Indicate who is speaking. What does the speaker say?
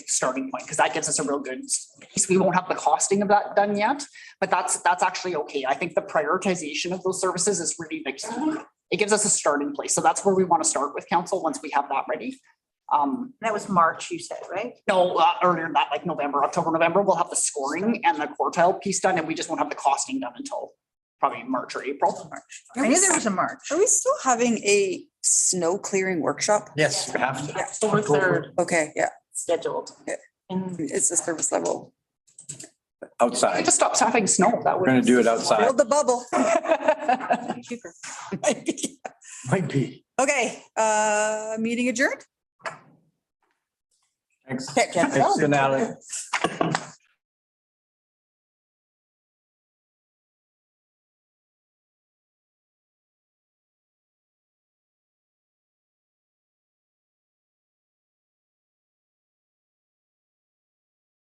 Speaker 1: starting point, because that gives us a real good piece. We won't have the costing of that done yet, but that's, that's actually okay. I think the prioritization of those services is really the key. It gives us a starting place. So that's where we want to start with council, once we have that ready. Um,
Speaker 2: That was March, you said, right?
Speaker 1: no, uh, earlier than that, like November, October, November, we'll have the scoring and the quartile piece done, and we just won't have the costing done until probably March or April.
Speaker 2: I knew there was a March.
Speaker 3: Are we still having a snow clearing workshop?
Speaker 4: Yes, you have to.
Speaker 5: October third
Speaker 3: Okay, yeah,
Speaker 5: scheduled.
Speaker 3: Yeah.
Speaker 5: And
Speaker 3: it's the service level.
Speaker 4: Outside.
Speaker 1: Just stop having snow, that would.
Speaker 4: We're gonna do it outside.
Speaker 3: Build the bubble.
Speaker 4: Might be.
Speaker 3: Okay, uh, meeting adjourned?
Speaker 4: Thanks.
Speaker 3: Okay,
Speaker 4: Thanks, Alan.